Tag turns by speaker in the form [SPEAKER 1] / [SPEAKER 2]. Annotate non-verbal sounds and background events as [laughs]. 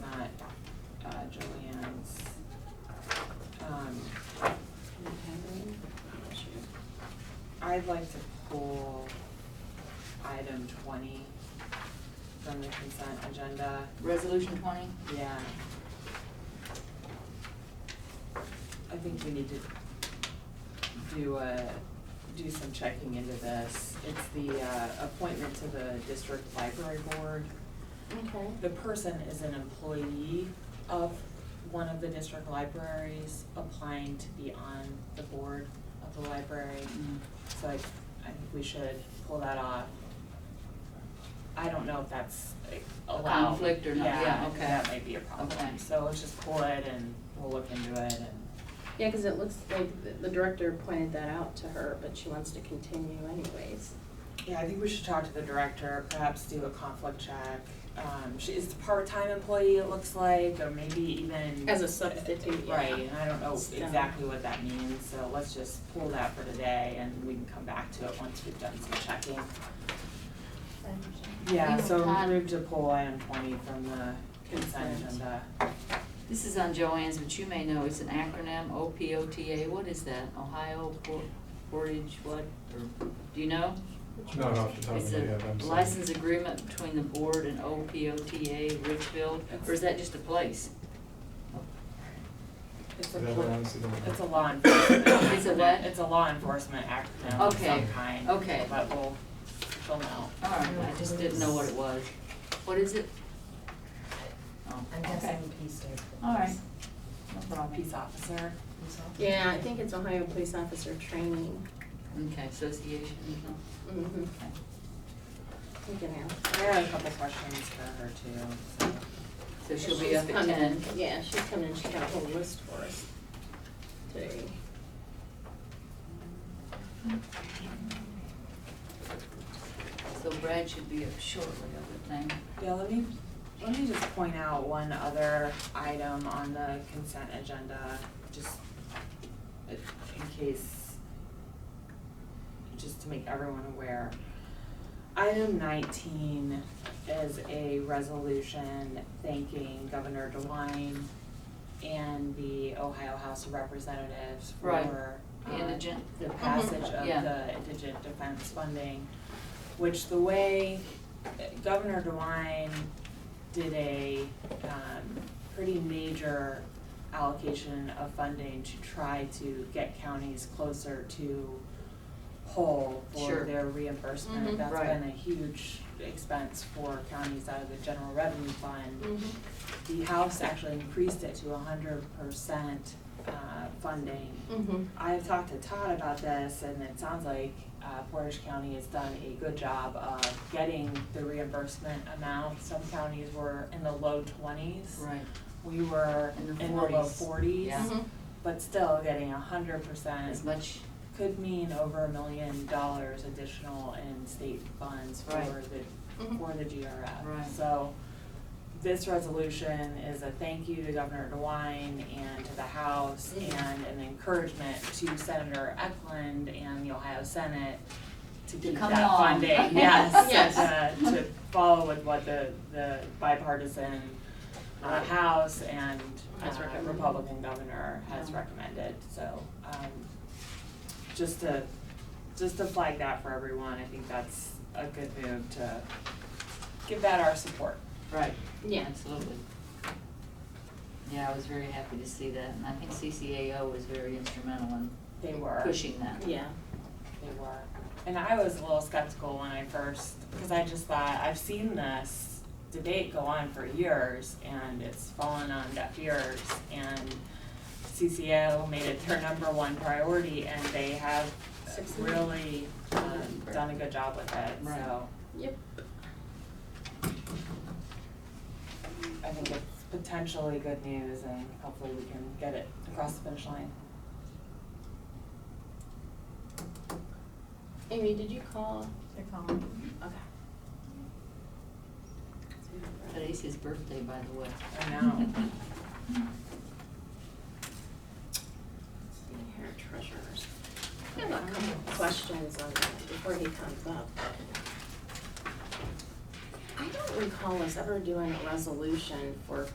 [SPEAKER 1] um, I'd like to pull item twenty from the consent agenda.
[SPEAKER 2] Resolution twenty?
[SPEAKER 1] Yeah. I think we need to do a, do some checking into this. It's the uh, appointment to the district library board.
[SPEAKER 2] Okay.
[SPEAKER 1] The person is an employee of one of the district libraries applying to be on the board of the library. So I, I think we should pull that off. I don't know if that's like,
[SPEAKER 2] A
[SPEAKER 1] allowed.
[SPEAKER 2] conflict or not, yeah,
[SPEAKER 1] I think
[SPEAKER 2] okay.
[SPEAKER 1] That might be a problem,
[SPEAKER 2] Okay.
[SPEAKER 1] so let's just pull it and we'll look into it and,
[SPEAKER 3] Yeah, because it looks like th- the director pointed that out to her, but she wants to continue anyways.
[SPEAKER 1] yeah, I think we should talk to the director, perhaps do a conflict check. Um, she is a part-time employee, it looks like, or maybe even.
[SPEAKER 3] As a substitute, yeah.
[SPEAKER 1] Right, and I don't know
[SPEAKER 3] So-
[SPEAKER 1] exactly what that means, so let's just pull that for today and we can come back to it once we've done some checking. Yeah,
[SPEAKER 2] We
[SPEAKER 1] so
[SPEAKER 2] have had-
[SPEAKER 1] move to pull item twenty from the consent
[SPEAKER 3] Consent.
[SPEAKER 1] agenda.
[SPEAKER 2] This is on Joanne's, but you may know, it's an acronym, OPOTA, what is that? Ohio Por- Portage, what, or, do you know?
[SPEAKER 4] Not off the top of
[SPEAKER 2] It's
[SPEAKER 4] my
[SPEAKER 2] a
[SPEAKER 4] head, I'm sorry.
[SPEAKER 2] license agreement between the board and OPOTA Richfield, or is that just a place?
[SPEAKER 1] It's a,
[SPEAKER 4] That one,
[SPEAKER 1] pl-
[SPEAKER 4] honestly, don't know.
[SPEAKER 1] it's a law enforcement.
[SPEAKER 2] It's a what?
[SPEAKER 1] It's a law enforcement acronym of
[SPEAKER 2] Okay,
[SPEAKER 1] some kind.
[SPEAKER 2] okay.
[SPEAKER 1] But we'll, we'll know.
[SPEAKER 2] All right, I just didn't know what it was. What is it? Oh,
[SPEAKER 5] I'm
[SPEAKER 2] okay.
[SPEAKER 5] guessing P stands for.
[SPEAKER 2] All right.
[SPEAKER 5] police.
[SPEAKER 2] No problem.
[SPEAKER 1] Peace officer.
[SPEAKER 5] Police officer?
[SPEAKER 3] Yeah, I think it's Ohio Police Officer Training.
[SPEAKER 2] Okay, association, no?
[SPEAKER 3] Mm-hmm.
[SPEAKER 2] okay.
[SPEAKER 3] You can ask.
[SPEAKER 1] I had a couple questions for her too, so.
[SPEAKER 2] So she'll be up
[SPEAKER 3] She's
[SPEAKER 2] at
[SPEAKER 3] coming.
[SPEAKER 2] ten.
[SPEAKER 3] Yeah, she's coming, she got a whole list for us today.
[SPEAKER 2] So Brad should be up shortly, I would think.
[SPEAKER 1] Yeah, let me, let me just point out one other item on the consent agenda, just in case, just to make everyone aware. Item nineteen is a resolution thanking Governor DeWine and the Ohio House of Representatives
[SPEAKER 2] Right.
[SPEAKER 1] for
[SPEAKER 2] The
[SPEAKER 1] uh,
[SPEAKER 2] indigent.
[SPEAKER 1] the passage of
[SPEAKER 2] Mm-hmm. Yeah.
[SPEAKER 1] the indigent defense funding, which the way uh, Governor DeWine did a um pretty major allocation of funding to try to get counties closer to whole for
[SPEAKER 2] Sure. Mm-hmm.
[SPEAKER 1] their reimbursement.
[SPEAKER 3] Mhm.
[SPEAKER 1] That's
[SPEAKER 2] Right.
[SPEAKER 1] been a huge expense for counties out of the general revenue fund the House actually increased it to hundred percent uh, funding.
[SPEAKER 3] Mm-hmm.
[SPEAKER 1] I have talked to Todd about this, and it sounds like uh, Portage County has done a good job of getting the reimbursement amount. Some counties were in the low twenties.
[SPEAKER 2] Right.
[SPEAKER 1] We were
[SPEAKER 2] In
[SPEAKER 1] in
[SPEAKER 2] the
[SPEAKER 1] the low
[SPEAKER 2] 40s.
[SPEAKER 1] forties.
[SPEAKER 2] Yeah.
[SPEAKER 3] Mm-hmm.
[SPEAKER 1] But still, getting hundred percent
[SPEAKER 2] As much,
[SPEAKER 1] could mean over a million dollars additional in state funds for
[SPEAKER 2] Right.
[SPEAKER 1] the,
[SPEAKER 3] Mhm.
[SPEAKER 1] for the GRF.
[SPEAKER 2] Right.
[SPEAKER 1] So this resolution is a thank you to Governor DeWine and to the House
[SPEAKER 3] Mhm.
[SPEAKER 2] Mm-hmm.
[SPEAKER 1] and an encouragement to Senator Eklund and the Ohio Senate to
[SPEAKER 2] To
[SPEAKER 1] keep
[SPEAKER 2] come
[SPEAKER 1] that
[SPEAKER 2] on.
[SPEAKER 1] funding.
[SPEAKER 2] [laughs]
[SPEAKER 1] Yes,
[SPEAKER 3] Yes.
[SPEAKER 1] and, uh, to follow with what the, the bipartisan uh, House and uh,
[SPEAKER 3] Has recommended.
[SPEAKER 1] Republican governor has
[SPEAKER 2] Yeah.
[SPEAKER 1] recommended, so, um, just to, just to flag that for everyone, I think that's a good move to give that our support.
[SPEAKER 2] right.
[SPEAKER 3] Yeah.
[SPEAKER 2] Absolutely. Yeah, I was very happy to see that, and I think CCAO was very instrumental in
[SPEAKER 1] They were, they
[SPEAKER 2] pushing that.
[SPEAKER 3] Yeah.
[SPEAKER 1] were. And I was a little skeptical when I first, because I just thought, I've seen this debate go on for years and it's fallen on deaf ears and CCAO made it their number one priority and they have
[SPEAKER 3] Succeeded.
[SPEAKER 1] really um, done a good job with it,
[SPEAKER 2] Right.
[SPEAKER 1] so
[SPEAKER 3] Yep.
[SPEAKER 1] I think it's potentially good news and hopefully we can get it across the finish line.
[SPEAKER 3] Amy, did you call?
[SPEAKER 5] They're calling.
[SPEAKER 3] Okay.
[SPEAKER 2] Today's his birthday, by the way.
[SPEAKER 1] I know.
[SPEAKER 3] Here, treasurers. I have a couple of questions on that before he comes up. I don't recall us ever doing a resolution for